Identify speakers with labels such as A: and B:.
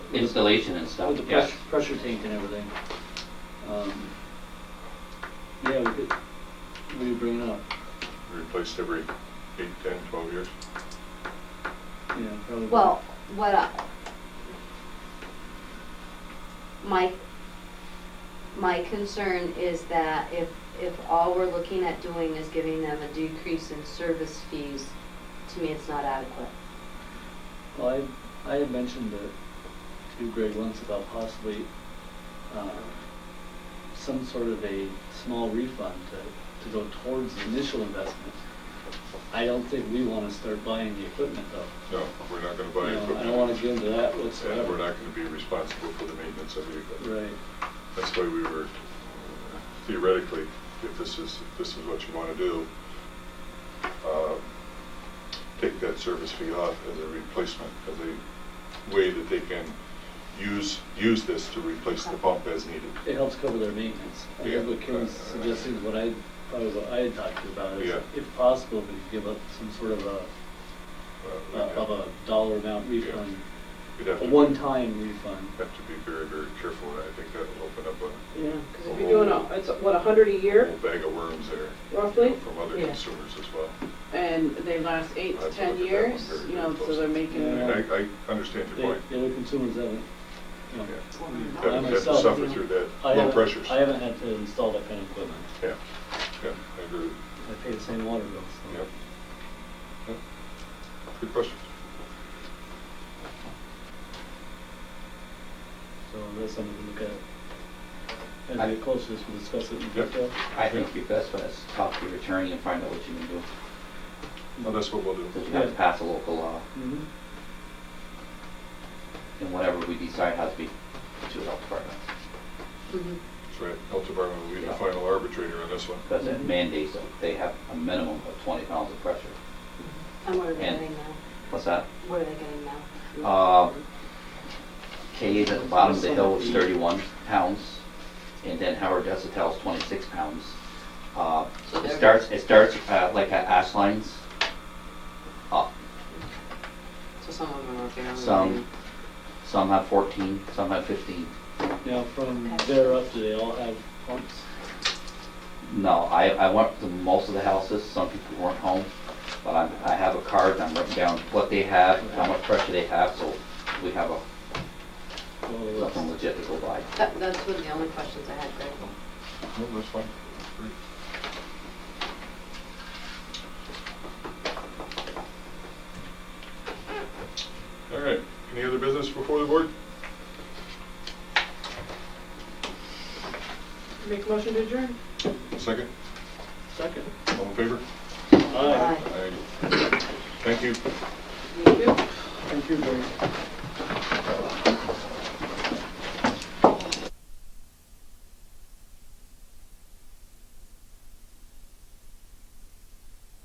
A: installation and stuff.
B: With the pressure, pressure tank and everything. Um, Yeah, we could, what do you bring it up?
C: replaced every eight, ten, twelve years.
B: Yeah, probably.
D: Well, what, I- my, my concern is that if, if all we're looking at doing is giving them a decrease in service fees, to me, it's not adequate.
B: Well, I, I had mentioned it to Greg once about possibly, uh, some sort of a small refund to, to go towards the initial investment. I don't think we wanna start buying the equipment though.
C: No, we're not gonna buy
B: You know,
C: equipment.
B: I don't wanna get into that
C: And we're
B: whatsoever.
C: not gonna be responsible for the maintenance of the equipment.
B: Right,
C: That's why we were uh, theoretically, if this is, if this is what you wanna do, uh, take that service fee off as a replacement, as a way that they can use, use this to replace the pump as needed. Uh,
B: it helps cover their maintenance. I
C: Yeah.
B: think what Kim's suggesting, is what I, probably what I had talked to you about
C: Yeah.
B: is if possible, we could give up some sort of a,
C: Uh,
B: a- of a dollar amount refund,
C: We'd have
B: a
C: to-
B: one-time refund.
C: Have to be very, very careful, and I think that'll open up a
B: Yeah.
E: Because if you're doing, a- it's what, a hundred a year
C: whole bag of worms there.
E: roughly,
C: From other
D: Yeah.
C: consumers as well.
E: and they last eight
C: I have
E: to
C: to look
E: ten
C: at that
E: years,
C: one very,
E: you know,
C: very
E: so they're
C: closely.
E: making.
B: Yeah.
C: I, I understand
B: They-
C: your point.
B: The other consumers haven't, you know. I
C: You have- you have to
B: myself, you
C: suffer
B: know,
C: through that,
B: I
C: low
B: haven't-
C: pressures.
B: I haven't had to install that kind of equipment.
C: Yeah, yeah, I agree, with
B: I pay the same water bill,
C: you.
B: so.
C: Yep. Yep. Good question.
B: So that's something we look at. As we
A: I-
B: get closer, to this, we'll discuss it in
C: Yep.
B: detail.
A: I think it'd be best for us to talk to your attorney and find out what you can do,
C: Well, that's what we'll do.
A: because we have to
B: Yeah.
A: pass a local law,
B: Mhm.
A: and whatever we decide has to be to the health department,
C: That's right, health department will be the
A: Yeah.
C: final arbitrator on this one.
A: because it mandates that they have a minimum of twenty pounds of pressure.
D: And what are they
A: And-
D: getting now?
A: What's that?
D: What are they getting now?
A: Uh, K is at the bottom of the hill is thirty-one pounds, and then Howard Desitel is twenty-six pounds. Uh,
D: So
A: It
D: they're-
A: starts, it starts uh, like at ash lines, Uh, up.
D: So some of them are barely.
A: Some, some have fourteen, some have fifteen.
B: Now, from there up, do they all have pumps?
A: No, I, I went to most of the houses, some people weren't home, but I, I have a card and I'm writing down what they have, how much pressure they have, so we have a,
B: Well,
A: something legit to go by.
D: That, that's one of the only questions I had, Greg.
C: No, that's fine. Great. All right, any other business before the board?
E: Make a motion to adjourn?
C: Second,
B: Second.
C: all in favor?
B: Aye.
C: Aye. Thank you.
E: Me too.
B: Thank you, Greg.